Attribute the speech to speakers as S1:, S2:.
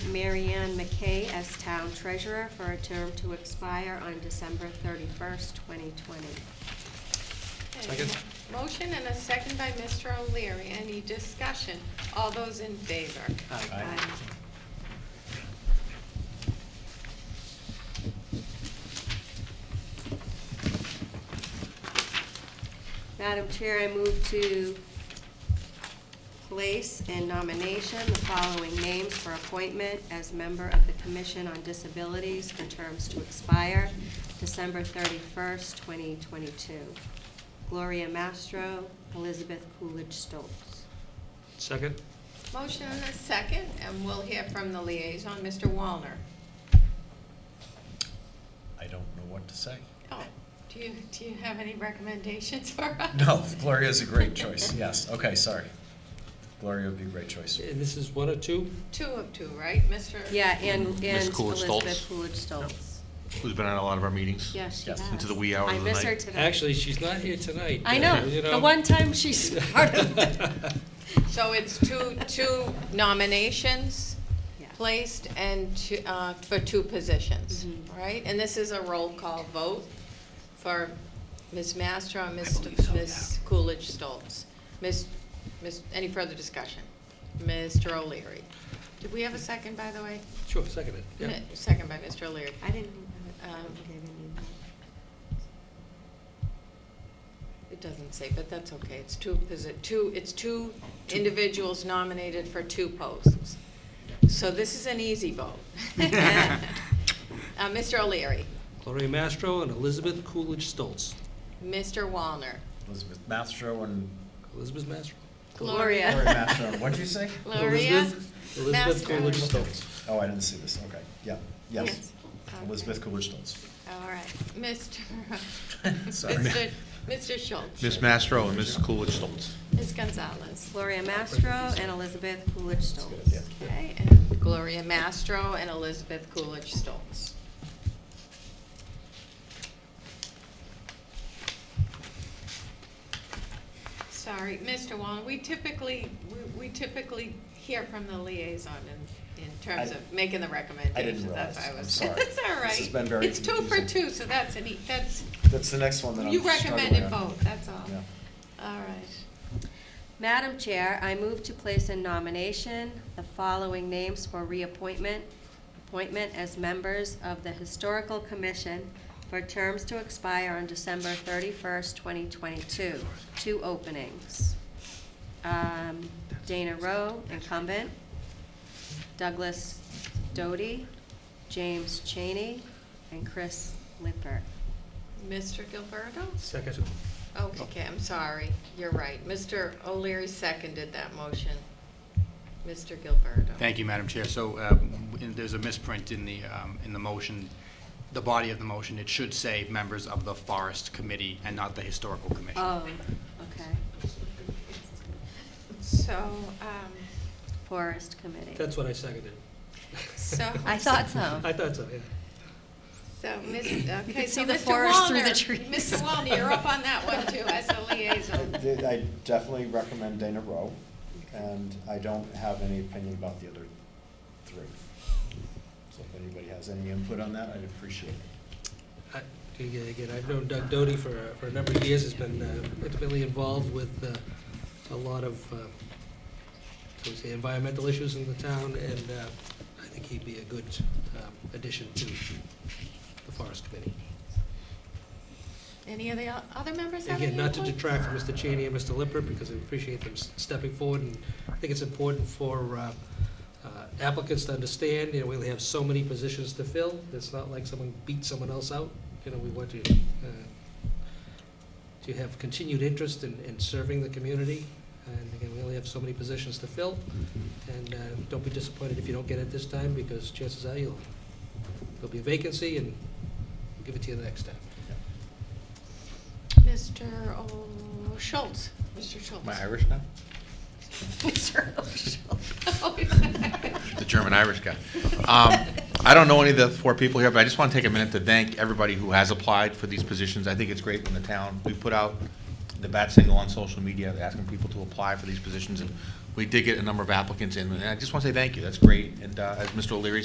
S1: Marianne McKay as Town Treasurer for a term to expire on December thirty-first, twenty twenty.
S2: Second.
S3: Motion and a second by Mr. O'Leary. Any discussion? All those in favor?
S2: Aye.
S1: Aye. Madam Chair, I move to place in nomination the following names for appointment as member of the Commission on Disabilities for terms to expire December thirty-first, twenty twenty-two. Gloria Mastro, Elizabeth Coolidge Stoltz.
S2: Second.
S3: Motion and a second, and we'll hear from the liaison, Mr. Walner.
S4: I don't know what to say.
S3: Oh, do you, do you have any recommendations for us?
S4: No, Gloria is a great choice, yes, okay, sorry. Gloria would be a great choice.
S2: And this is one or two?
S3: Two of two, right, Mr.?
S1: Yeah, and, and
S5: Miss Coolidge Stoltz.
S1: Elizabeth Coolidge Stoltz.
S5: Who's been on a lot of our meetings.
S1: Yes, she
S4: Yes.
S1: has.
S5: Into the wee hours of the
S1: I miss her
S5: night.
S1: today.
S2: Actually, she's not here tonight.
S1: I
S2: uh,
S1: know,
S2: you
S1: the one time she started.
S3: So it's two, two nominations
S1: Yeah.
S3: placed and two, uh, for two positions,
S1: Mhm.
S3: right? And this is a roll call vote for Ms. Mastro and Ms.
S5: believe so,
S3: Ms. Coolidge Stoltz. Ms., Ms., any further discussion? Mr. O'Leary. Did we have a second, by the way?
S2: Sure, second it, yeah.
S3: Mi- Second by Mr. O'Leary.
S1: I didn't even, I don't
S3: Um,
S1: think I even knew
S3: It doesn't say, but that's okay. It's two, is it two, it's two individuals nominated for two posts. So this is an easy vote. Uh, Mr. O'Leary,
S2: Gloria Mastro and Elizabeth Coolidge Stoltz.
S3: Mr. Walner,
S4: Elizabeth Mastro and
S2: Elizabeth Mastro?
S1: Gloria.
S4: Gloria Mastro, what'd you say?
S3: Gloria
S2: Elizabeth- Elizabeth
S3: Mastro.
S2: Coolidge Stoltz.
S4: Oh, I didn't see this, okay, yeah, yes.
S3: Yes. Okay.
S4: Elizabeth Coolidge Stoltz.
S3: All right, Mr.
S4: Sorry.
S3: Mr. Mr. Schultz,
S5: Miss Mastro and Mrs. Coolidge Stoltz.
S3: Ms. Gonzalez.
S1: Gloria Mastro and Elizabeth Coolidge Stoltz.
S4: Yeah.
S3: Okay, and Gloria Mastro and Elizabeth Coolidge Stoltz. Sorry, Mr. Wallen, we typically, we- we typically hear from the liaison in, in terms
S4: I-
S3: of making the recommendations. That's why I
S4: realize.
S3: was.
S4: I'm sorry.
S3: That's all right.
S4: This has been very
S3: It's two for
S4: confusing.
S3: two, so that's an, e- that's,
S4: That's the next one that I'm
S3: you recommended
S4: struggling on.
S3: both, that's all.
S4: Yeah.
S3: All right.
S1: Madam Chair, I move to place in nomination the following names for reappointment, appointment as members of the Historical Commission for terms to expire on December thirty-first, twenty twenty-two. Two openings. Um, Dana Rowe, incumbent, Douglas Doty, James Cheney, and Chris Lippert.
S3: Mr. Gilberto?
S2: Second.
S3: Okay, I'm sorry, you're right. Mr. O'Leary seconded that motion. Mr. Gilberto.
S6: Thank you, Madam Chair. So uh, in- there's a misprint in the, um, in the motion, the body of the motion. It should say members of the Forest Committee and not the Historical Commission.
S1: Oh, okay.
S3: So, um,
S1: Forest Committee.
S2: That's what I seconded.
S3: so.
S1: I thought so.
S2: I thought so, yeah.
S3: So, Miss, okay,
S1: can
S3: so
S1: see the
S3: Mr.
S1: forest through the
S3: Wallner-
S1: trees.
S3: Mr. Wallner, you're up on that one too, as the liaison.
S4: I I definitely recommend Dana Rowe, and I don't have any opinion about the other three. So if anybody has any input on that, I'd appreciate it.
S2: I- Again, again, I've known Doug Doty for, uh, for a number of years, has been uh, intimately involved with uh, a lot of, uh, shall we say, environmental issues in the town, and uh, I think he'd be a good um, addition to the Forest Committee.
S3: Any of the o- other members have any
S2: Again, not to
S3: input?
S2: detract from Mr. Cheney and Mr. Lippert, because I appreciate them s- stepping forward, and I think it's important for uh, uh, applicants to understand, you know, we only have so many positions to fill, it's not like someone beat someone else out, you know, we want to, uh, to have continued interest in, in serving the community, and again, we only have so many positions to fill, and uh, don't be disappointed if you don't get it this time, because chances are you'll, there'll be a vacancy, and we'll give it to you the next time.
S3: Mr. O- Schultz, Mr. Schultz.
S4: Irish now?
S1: Mr. Oshel.
S5: The German-Irish guy. Um, I don't know any of the four people here, but I just want to take a minute to thank everybody who has applied for these positions. I think it's great when the town, we put out the bat signal on social media, asking people to apply for these positions, and we did get a number of applicants in, and I just want to say thank you, that's great, and uh, as Mr. O'Leary